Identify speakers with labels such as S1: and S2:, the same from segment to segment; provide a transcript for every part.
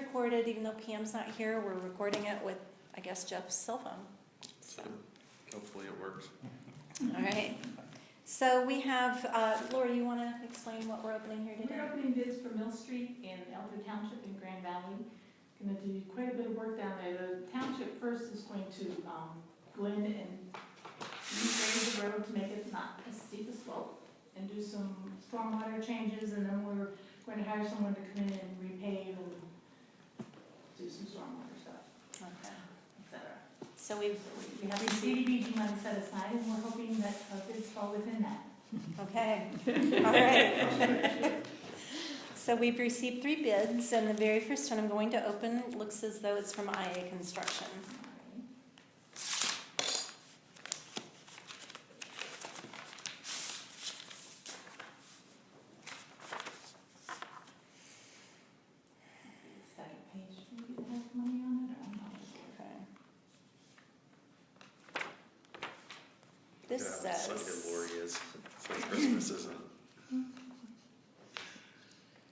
S1: recorded, even though Pam's not here, we're recording it with, I guess, Jeff's cell phone. So,
S2: Hopefully it works.
S1: all right. So we have, uh, Laura, you want to explain what we're opening here today?
S3: We're opening bids for Mill Street in Elder Township in Grand Valley. Going to do quite a bit of work down there. The township first is going to um, go in and regrade the road to make it not as steep a slope and do some stormwater changes, and then we're going to hire someone to come in and repave and do some stormwater stuff,
S1: Okay.
S3: et cetera.
S1: So we've,
S3: We have the CDBG money set aside, and we're hoping that uh, bids fall within that.
S1: okay, all right. So we've received three bids, and the very first one I'm going to open looks as though it's from IA Construction.
S3: Second page, maybe it has money on it, I'm not sure.
S1: Okay. This
S2: Yeah,
S1: says.
S2: it's like it Lori is, it's like Christmas isn't.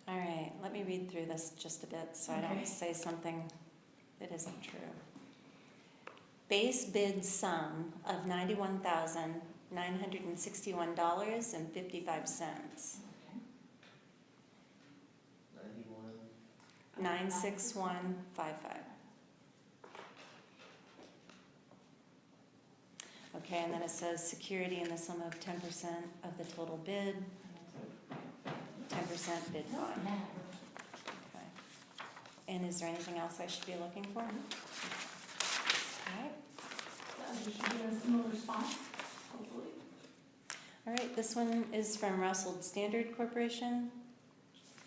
S1: All right, let me read through this just a bit so I
S3: Okay.
S1: don't say something that isn't true. Base bid sum of ninety-one thousand, nine hundred and sixty-one dollars and fifty-five cents.
S2: Ninety-one.
S1: Nine, six, one, five, five. Okay, and then it says security in the sum of ten percent of the total bid, ten percent bid
S3: No,
S1: bond.
S3: no.
S1: Okay. And is there anything else I should be looking for? Alright,
S3: Uh, we should get a similar response, hopefully.
S1: alright, this one is from Russell Standard Corporation.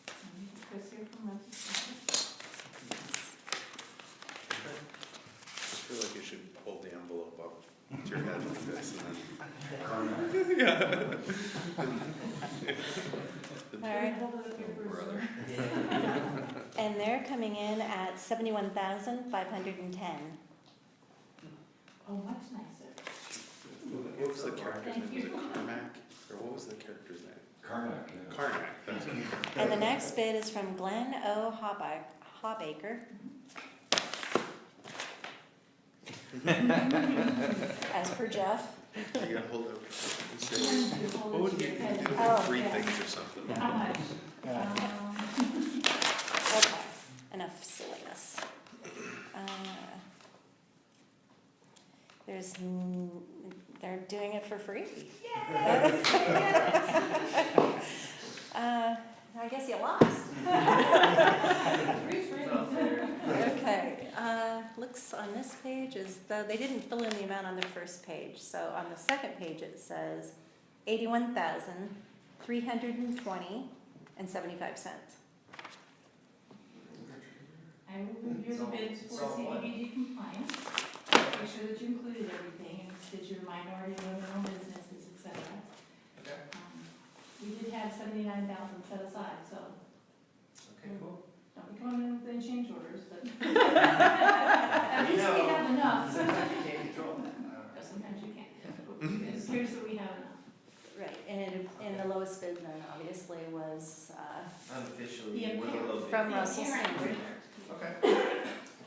S3: Um, Chris here from Rochester.
S2: Just feel like you should hold the envelope up to your head like this and then. Yeah.
S1: Alright,
S3: Hold it up here for a
S2: Brother.
S3: second.
S1: and they're coming in at seventy-one thousand five hundred and ten.
S3: Oh, much nicer.
S2: What was the character's
S3: Thank
S2: name? Was it
S3: you.
S2: Carmack? Or what was the character's name?
S4: Carmack, yeah.
S2: Carmack, that's it.
S1: And the next bid is from Glenn O. Hobaker, Hobaker. As per Jeff.
S2: You gotta hold up.
S3: You want to hold
S2: What
S3: it
S2: would
S3: to
S2: you
S3: your
S2: do?
S3: head.
S1: Oh,
S2: Three
S3: yeah.
S2: things or something.
S3: How much?
S4: Yeah.
S3: Um,
S1: Okay, enough silliness. Uh, There's, n- they're doing it for free. Uh, I guess you lost.
S3: Three strings.
S1: Okay, uh, looks on this page as though they didn't fill in the amount on the first page. So on the second page, it says eighty-one thousand, three hundred and twenty and seventy-five cents.
S3: I will review the bids for CDBG compliance, make sure that you included everything, and did your minority women owned businesses, et cetera.
S5: Okay.
S3: Um, We did have seventy-nine thousand set aside, so
S5: Okay, cool.
S3: don't be coming in with any change orders, but. At least we have enough,
S5: Sometimes you can't control that.
S3: But sometimes you can't. It appears that we have enough.
S1: Right, and, and the lowest bid then obviously was, uh,
S3: Yeah,
S5: Unofficially, we're a little bit.
S1: From Russell
S3: Yeah, right.
S1: Sandberg.
S5: Okay.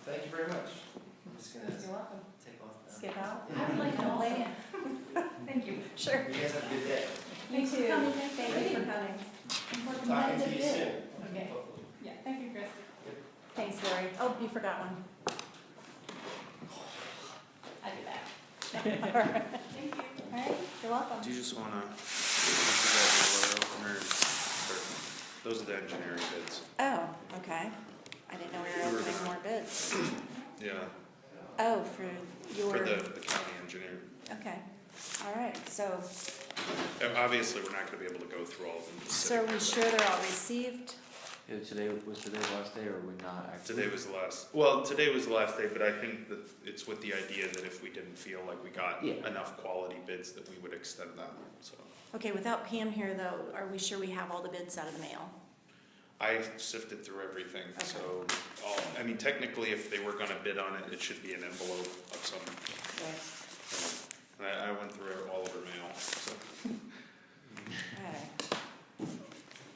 S5: Thank you very much. I'm just gonna
S1: you're welcome,
S5: take off now.
S1: skip out.
S3: I would like to also, thank you.
S1: Sure.
S5: You guys have a good day.
S3: Thanks for
S1: too.
S3: coming.
S1: Thank you for coming.
S3: We're
S5: Talking
S3: competitive
S5: to you
S3: bid.
S5: soon.
S3: Okay.
S5: Hopefully.
S3: Yeah, thank you, Chris.
S1: Thanks, Lori. Oh, you forgot one.
S3: I'll be back.
S1: All right,
S3: Thank you.
S1: you're welcome.
S2: Do you just wanna, this is that letter opener, or- those are the engineering bids.
S1: Oh, okay. I didn't know we were opening more bids.
S2: Yeah,
S1: Oh, for your,
S2: for the, the county engineer.
S1: okay. All right, so,
S2: Uh, Obviously, we're not gonna be able to go through all of them. just
S1: so are we sure
S2: sitting here,
S1: they're all received?
S6: Yeah, today was today's last day, or would not
S2: but
S6: actually?
S2: Today was the last, well, today was the last day, but I think that it's with the idea that if we didn't feel like we got
S6: Yeah.
S2: enough quality bids, that we would extend that, so.
S1: Okay, without Pam here though, are we sure we have all the bids out of the mail?
S2: I sifted through everything, so, all, I mean, technically, if they were gonna bid on it, it should be an envelope of some,
S1: Yes.
S2: and I, I went through all of her mail, so.
S1: Okay.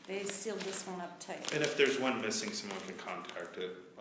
S1: They sealed this one up tight.
S2: And if there's one missing, someone can contact it,